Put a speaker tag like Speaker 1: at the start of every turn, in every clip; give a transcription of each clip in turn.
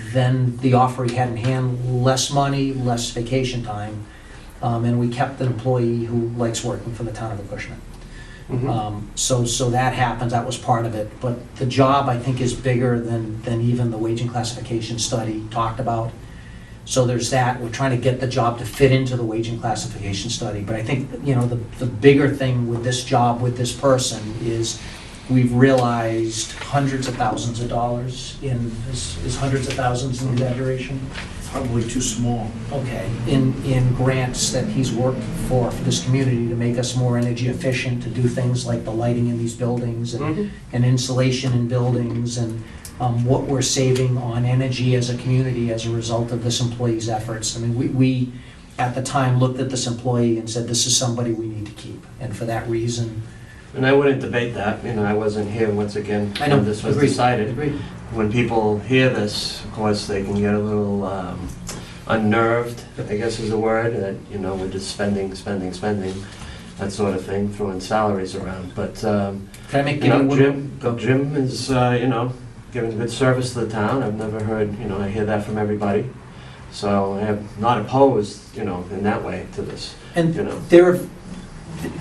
Speaker 1: than the offer he had in hand, less money, less vacation time. Um, and we kept an employee who likes working for the town of Acushnet.
Speaker 2: Mhm.
Speaker 1: Um, so, so that happens, that was part of it, but the job, I think, is bigger than, than even the wage and classification study talked about. So there's that, we're trying to get the job to fit into the wage and classification study, but I think, you know, the, the bigger thing with this job, with this person, is we've realized hundreds of thousands of dollars in, is is hundreds of thousands an exaggeration?
Speaker 3: Probably too small.
Speaker 1: okay, in, in grants that he's worked for, for this community to make us more energy efficient, to do things like the lighting in these buildings and
Speaker 2: Mhm.
Speaker 1: and insulation in buildings and um, what we're saving on energy as a community as a result of this employee's efforts. I mean, we, we, at the time, looked at this employee and said, this is somebody we need to keep. And for that reason,
Speaker 2: And I wouldn't debate that, you know, I wasn't here once again
Speaker 1: I know.
Speaker 2: when this was
Speaker 1: Agreed.
Speaker 2: decided.
Speaker 1: agreed.
Speaker 2: When people hear this, of course, they can get a little um, unnerved, I guess is the word, that, you know, we're just spending, spending, spending, that sort of thing, throwing salaries around. But, um,
Speaker 1: Can I make,
Speaker 2: you know,
Speaker 1: one-
Speaker 2: Jim, Jim is, uh, you know, giving good service to the town. I've never heard, you know, I hear that from everybody. So I am not opposed, you know, in that way to this,
Speaker 1: and
Speaker 2: you know.
Speaker 1: There, have-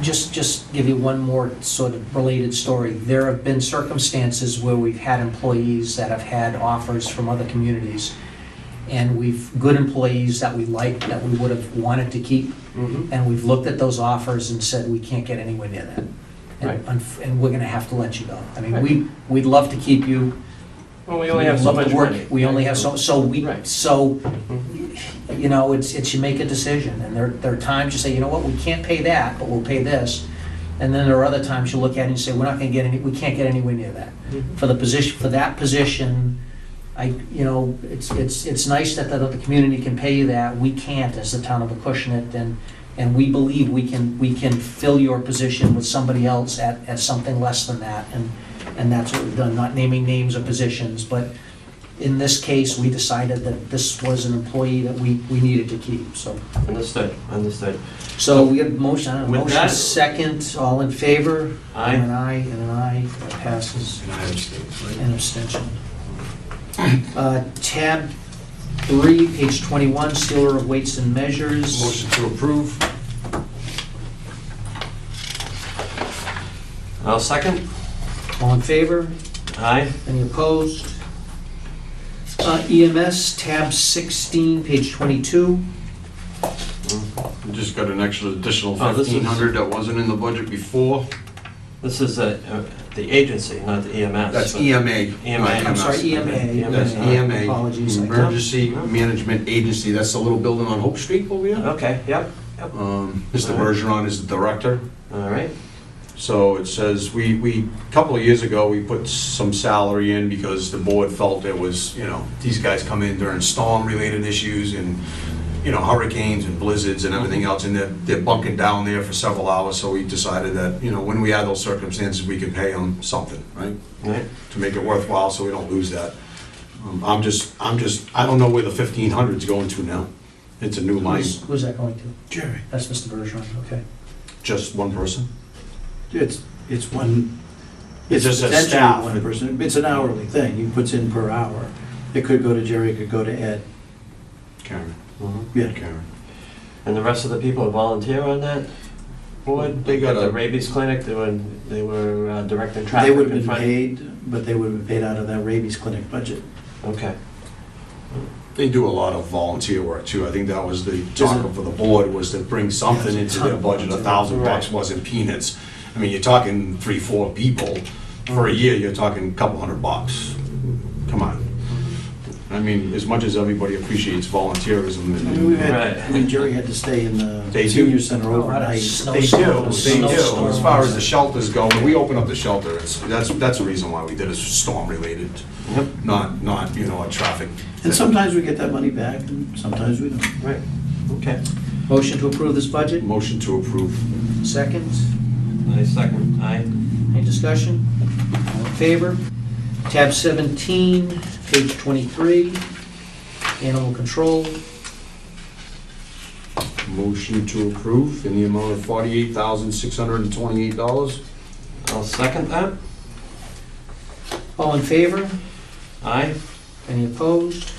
Speaker 1: just, just give you one more sort of related story. There have been circumstances where we've had employees that have had offers from other communities, and we've, good employees that we like, that we would have wanted to keep,
Speaker 2: Mhm.
Speaker 1: and we've looked at those offers and said, we can't get anywhere near that.
Speaker 2: Right.
Speaker 1: And, unf- and we're gonna have to let you go. I mean, we, we'd love to keep you.
Speaker 2: Well, we only have so
Speaker 1: We'd love
Speaker 2: much
Speaker 1: to work.
Speaker 2: money.
Speaker 1: We only have so, so we,
Speaker 2: Right.
Speaker 1: so,
Speaker 2: Mhm.
Speaker 1: you know, it's, it's you make a decision, and there, there are times you say, you know what, we can't pay that, but we'll pay this. And then there are other times you look at it and you say, we're not gonna get any, we can't get anywhere near that.
Speaker 2: Mm-hmm.
Speaker 1: For the position, for that position, I, you know, it's, it's, it's nice that the, that the community can pay you that, we can't as the town of Acushnet, and, and we believe we can, we can fill your position with somebody else at, at something less than that, and, and that's what we've done, not naming names or positions, but in this case, we decided that this was an employee that we, we needed to keep, so.
Speaker 2: Understood, understood.
Speaker 1: So we have motion, I don't know,
Speaker 2: With
Speaker 1: motion
Speaker 2: that-
Speaker 1: second, all in favor? And
Speaker 2: I,
Speaker 1: An aye, and an aye, that passes,
Speaker 3: And I understand, right?
Speaker 1: an abstention. Uh, Tab three, page twenty-one, sealer of weights and measures.
Speaker 3: Motion to approve.
Speaker 2: I'll second.
Speaker 1: All in favor?
Speaker 2: Aye.
Speaker 1: Any opposed? Uh, EMS, tab sixteen, page twenty-two.
Speaker 3: We Just got an extra additional
Speaker 2: Oh, this is-
Speaker 3: fifteen hundred that wasn't in the budget before.
Speaker 2: This is uh, uh, the agency, not the E EMS.
Speaker 3: That's E EMA. not
Speaker 2: EMA. I'm
Speaker 1: I'm sorry,
Speaker 3: MS.
Speaker 1: EMA.
Speaker 3: That's
Speaker 2: Yeah,
Speaker 3: EMA.
Speaker 1: Apologies.
Speaker 3: Mm-hmm.
Speaker 1: I-
Speaker 3: Emergency Management Agency. That's the little building on Hope Street over here.
Speaker 2: Okay, yep,
Speaker 3: Um, Mr.
Speaker 2: All right.
Speaker 3: Bergeron is the director.
Speaker 2: all right.
Speaker 3: So it says, we, we, a couple of years ago, we put some salary in because the board felt it was, you know, these guys come in during storm-related issues and, you know, hurricanes and blizzards and everything else, and they're, they're bunking down there for several hours, so we decided that, you know, when we had those circumstances, we could pay them something, right?
Speaker 2: All right.
Speaker 3: To make it worthwhile, so we don't lose that. Um, I'm just, I'm just, I don't know where the fifteen hundred's going to now. It's a new line,
Speaker 1: Who's, who's that going to?
Speaker 4: Jerry,
Speaker 1: That's Mr. Bergeron, okay.
Speaker 3: just one person.
Speaker 4: it's, it's one,
Speaker 3: It
Speaker 4: it's
Speaker 3: just says
Speaker 4: potentially
Speaker 3: staff.
Speaker 4: one person, it's an hourly thing, he puts in per hour. It could go to Jerry, it could go to Ed,
Speaker 3: Karen,
Speaker 2: Mhm.
Speaker 4: yeah.
Speaker 3: Karen.
Speaker 2: And the rest of the people volunteer on that board?
Speaker 3: They got
Speaker 2: At the
Speaker 3: a-
Speaker 2: rabies clinic, they were, they were uh, directing
Speaker 4: They
Speaker 2: traffic in
Speaker 4: would have been
Speaker 2: front.
Speaker 4: paid, but they would have been paid out of that rabies clinic budget.
Speaker 2: Okay,
Speaker 3: They do a lot of volunteer work too. I think that was the talk for the board was to bring something into their budget. A thousand bucks wasn't peanuts. I mean, you're talking three, four people. For a year, you're talking a couple hundred bucks. Come on. I mean, as much as everybody appreciates volunteerism
Speaker 4: I mean, we've
Speaker 3: and.
Speaker 4: had, I mean, Jerry had to stay in
Speaker 3: They
Speaker 4: the
Speaker 3: do.
Speaker 4: senior center
Speaker 1: Oh, I
Speaker 4: overnight.
Speaker 1: don't-
Speaker 3: They do, they do. As far as the shelters go, when we open up the shelter, it's, that's, that's the reason why we did it, storm related,
Speaker 2: yep,
Speaker 3: not, not, you know, a traffic.
Speaker 4: And sometimes we get that money back, and sometimes we don't.
Speaker 2: right, okay.
Speaker 1: Motion to approve this budget,
Speaker 3: Motion to approve.
Speaker 1: second.
Speaker 2: I second, aye.
Speaker 1: Any discussion? All in favor? Tab 17, page 23, animal control.
Speaker 3: Motion to approve in the amount of forty-eight thousand, six hundred and twenty-eight dollars.
Speaker 2: I'll second that,
Speaker 1: All in favor?
Speaker 2: aye.
Speaker 1: Any opposed?